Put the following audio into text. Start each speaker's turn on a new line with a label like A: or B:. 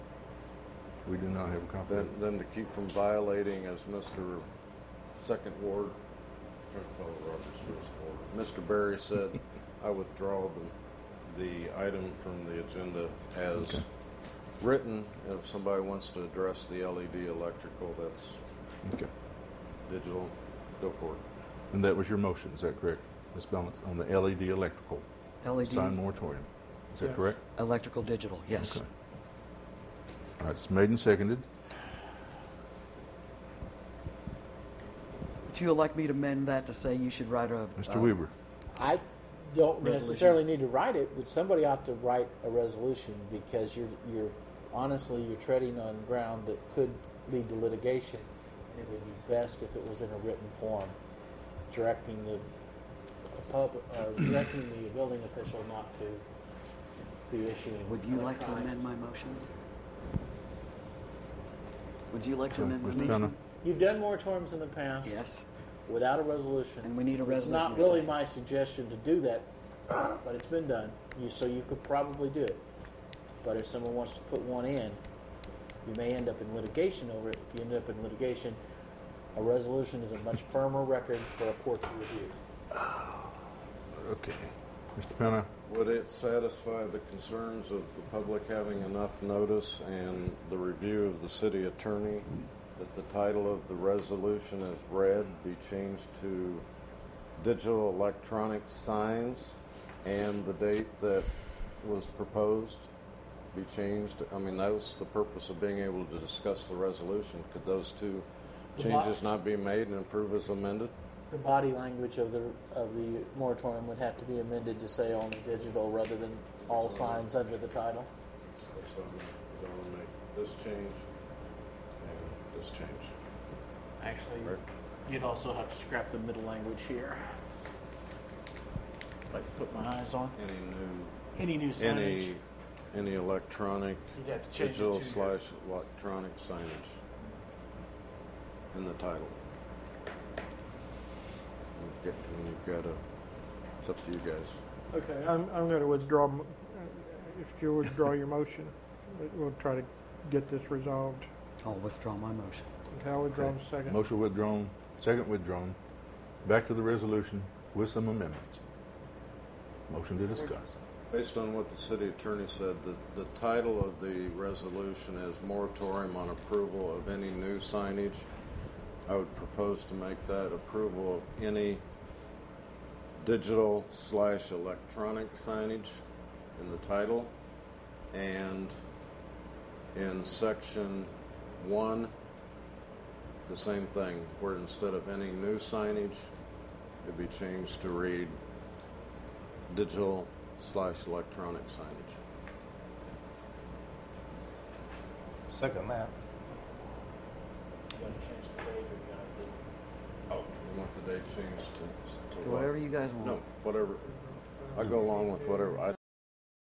A: We do not have a copy.
B: Then, then to keep from violating as Mr. Second Ward, trying to follow Robert's rules of order. Mr. Barry said, I withdraw the, the item from the agenda as written. If somebody wants to address the LED electrical, that's
A: Okay.
B: digital, go for it.
A: And that was your motion, is that correct? Ms. Belmont, on the LED electrical sign
C: LED,
A: moratorium. Is that
D: Yeah.
A: correct?
C: E electrical, digital, yes.
A: Okay. All right, it's made and seconded.
C: Would you like me to amend that to say you should write a?
A: Mr.
C: uh,
A: Weaver,
D: I don't
C: Resolution.
D: necessarily need to write it, but somebody ought to write a resolution because you're you're honestly you're treading on ground that could lead to litigation, and it would be best if it was in a written form, directing the pub uh, directing the building official not to be issuing.
C: Would you like to
D: electronic-
C: amend my motion? Would you like to
A: Uh,
C: amend my
A: Mr. Gunner?
C: motion?
D: You've done moratoriums in the past
C: Yes,
D: without a resolution.
C: and we need a
D: It's
C: resolution.
D: not
C: to
D: really
C: say-
D: my suggestion to do that, but it's been done, you, so you could probably do it. But if someone wants to put one in, you may end up in litigation over it. If you end up in litigation, a resolution is a much firmer record for a court to review.
A: okay. Mr. Penna,
B: Would it satisfy the concerns of the public having enough notice and the review of the city attorney that the title of the resolution as read be changed to digital electronic signs and the date that was proposed be changed? I mean, that was the purpose of being able to discuss the resolution. Could those two
D: The mo-
B: changes not be made and approve as amended?
D: The body language of the, of the moratorium would have to be amended to say only digital rather than all signs under the title.
B: That's what I'm gonna- I'm gonna make this change and this change.
D: Actually, you'd also have to scrap the middle language here. If I could put my eyes on.
B: Any new,
D: Any new signage.
B: any, any electronic,
D: You'd have to change it
B: digital
D: to-
B: slash electronic signage in the title. You've got- And you've got a, it's up to you guys.
E: Okay, I'm, I'm going to withdraw, m- uh, if you withdraw your motion, we- we'll try to get this resolved.
C: I'll withdraw my motion.
E: Okay, I'll withdraw in
A: Okay.
E: a second.
A: motion withdrawn, second withdrawn. Back to the resolution with some amendments. Motion to discuss.
B: Based on what the city attorney said, the, the title of the resolution is moratorium on approval of any new signage. I would propose to make that approval of any digital slash electronic signage in the title. And in section one, the same thing, where instead of any new signage, it'd be changed to read digital slash electronic signage.
F: Second that.
D: You want to change the date or you want to do-
B: Oh. You want the date changed to, to what?
C: Whatever you guys want.
B: No, whatever. I go along with whatever. I